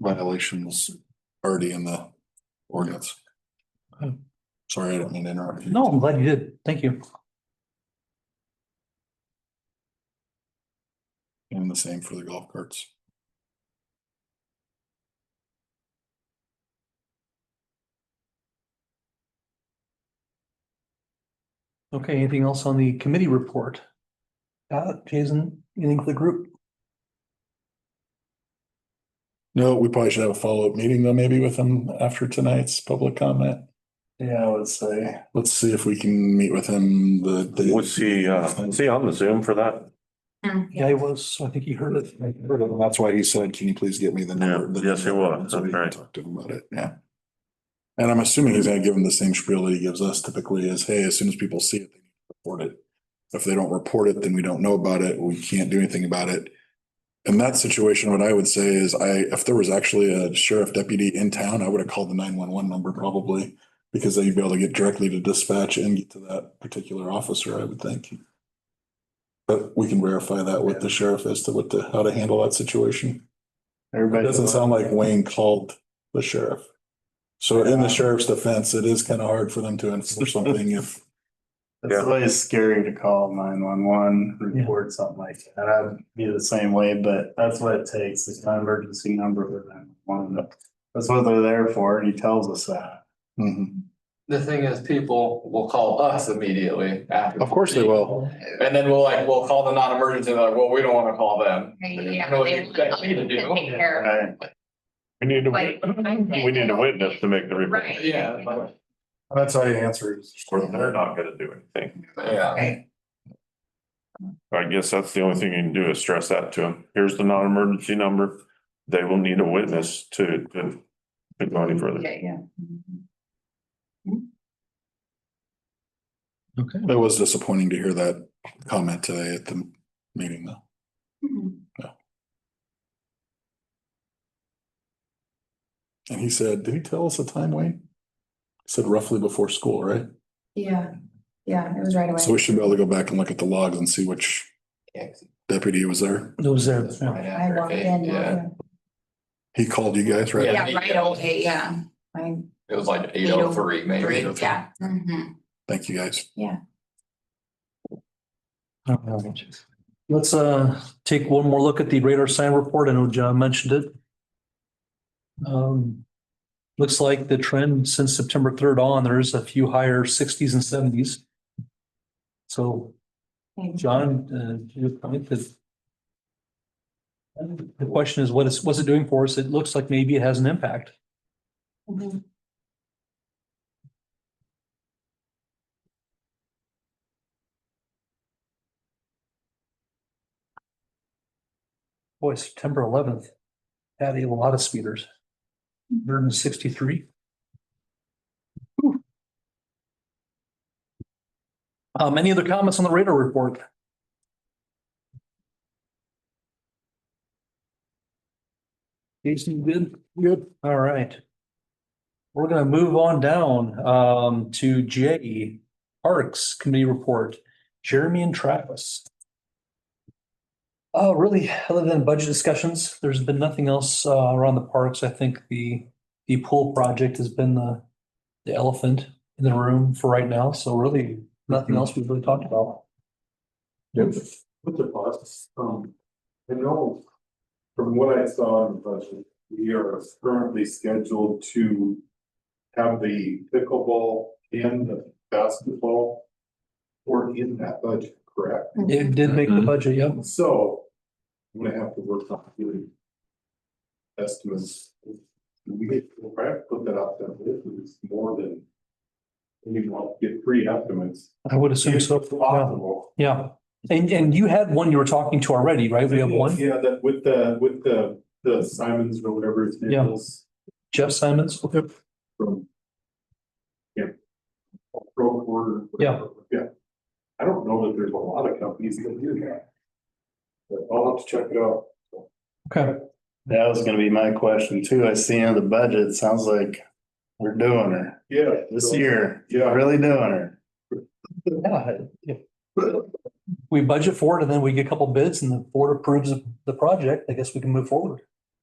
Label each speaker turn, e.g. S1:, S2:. S1: violations already in the ordinance.
S2: Oh.
S1: Sorry, I didn't mean to interrupt. you.
S2: No, I'm glad you did. Thank you.
S1: And the same for the golf carts.
S2: Okay, anything else on the committee report? Uh, Jason, anything for the group?
S1: No, we probably should have a follow-up meeting though, maybe with him after tonight's public comment. Yeah, I would say. Let's see if we can meet with him the. the-
S3: Was he, uh, was he on the Zoom for that?
S2: Yeah, I was, so I think he heard it.
S1: That's why he said, can you please get me the number?
S3: Yeah,
S1: the
S3: yes, he
S1: number,"
S3: was,
S1: so we
S3: that's
S1: can
S3: right.
S1: Talk to him about it, yeah. And I'm assuming he's gonna give him the same spiel that he gives us typically is, hey, as soon as people see it, they need to report it. If they don't report it, then we don't know about it, we can't do anything about it. In that situation, what I would say is I, if there was actually a sheriff deputy in town, I would have called the nine one one number probably. Because then you'd be able to get directly to dispatch and get to that particular officer, I would think. But we can verify that with the sheriff as to what the, how to handle that situation. It
S4: Everybody.
S1: doesn't sound like Wayne called the sheriff. So in the sheriff's defense, it is kind of hard for them to enforce something if,
S4: It's always scary to call nine one one, report something like that. I'd be the same way, but that's what it takes. It's an emergency number for nine one one. That's what they're there for. and He tells us that.
S1: Mhm.
S5: The thing is, people will call us immediately after.
S1: of course they will.
S5: And then we'll like, we'll call the non-emergency, they're like, well, we don't wanna call them.
S6: Yeah.
S5: I know what you expect me to do.
S6: Take care of it,
S4: Right.
S3: We need to,
S6: like,
S3: wit-
S6: I'm saying-
S3: we need a witness to make the report.
S6: Right.
S5: Yeah, but-
S1: That's how you answer is.
S3: Or they're not gonna do anything.
S5: yeah.
S6: Right.
S3: I guess that's the only thing you can do is stress that to them. Here's the non-emergency number. They will need a witness to, to to go any further.
S6: Yeah, yeah.
S2: Okay.
S1: It was disappointing to hear that comment today at the meeting though.
S6: Mhm.
S1: And he said, did he tell us the time, Wayne? He Said roughly before school, right?
S6: Yeah, yeah, it was right
S1: So we
S6: away.
S1: should be able to go back and look at the logs and see which
S5: Yeah, 'cause
S1: deputy was there.
S2: It was there.
S5: it's right
S6: I
S5: after
S6: walked
S5: eight,
S6: in.
S5: Yeah,
S1: He called you guys, right?
S6: Yeah, right away, yeah. I,
S5: it was like eight oh three maybe.
S6: yeah. Mhm.
S1: Thank you guys.
S2: All right. Let's uh take one more look at the radar sign report. I know John mentioned it. Um, looks like the trend since September third on, there's a few higher sixties and seventies. So
S6: Thank you.
S2: John, uh, to your point that the question is, what is, what's it doing for us? It looks like maybe it has an impact.
S6: Mhm.
S2: Boy, September eleventh had a lot of speeders. Hundred and sixty-three. Um, any other comments on the radar report? Jason, you good? Good. All right. We're gonna move on down, um, to J, Parks Committee Report, Jeremy and Travis. Uh, really, other than budget discussions, there's been nothing else, uh, around the parks. I think the, the pool project has been the, the elephant in the room for right now, so really, nothing else we've really talked about.
S7: With the bus, um, I know from what I saw in the budget, we are currently scheduled to have the pickleball and the basketball were in that budget, correct?
S2: It did make the
S5: Mhm.
S2: budget, yep.
S7: So I'm gonna have to work on doing estimates. We get, we'll probably put that out there, but if it's more than we will get three estimates.
S2: I would assume
S7: If
S2: so. Yeah.
S7: Possible.
S2: Yeah, and, and you had one you were talking to already, right? We have one,
S7: Yeah, that with the, with the, the Simons or whatever his
S2: Yeah.
S7: name is
S2: Jeff Simons.
S7: from. Yeah. Road order. whatever, Yeah. I don't know that there's a lot of companies that do that. But I'll have to check it out.
S2: Okay,
S4: That was gonna be my question too. I see in the budget, it sounds like we're doing her
S7: Yeah.
S4: this year.
S7: Yeah.
S4: Really doing her.
S2: yeah. yeah. We budget for it and then we get a couple bids and the board approves of the project, I guess we can move forward.